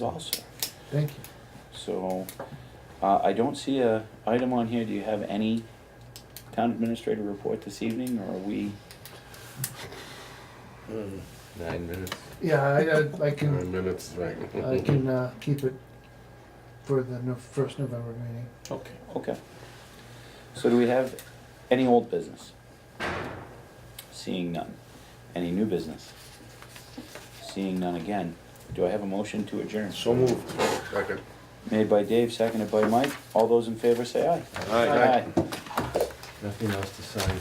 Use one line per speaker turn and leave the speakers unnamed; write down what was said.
also.
Thank you.
So, uh, I don't see a item on here, do you have any town administrator report this evening, or are we?
Nine minutes.
Yeah, I, I, I Mm. can,
Nine minutes, right?
I can, uh, keep it for the no- first November meeting.
Okay. Okay. So do we have any old business? Seeing none. Any new business? Seeing none again. Do I have a motion to adjourn?
So moved. Second.
Made by Dave, seconded by Mike. All those in favor say aye.
Aye.
Nothing else to sign.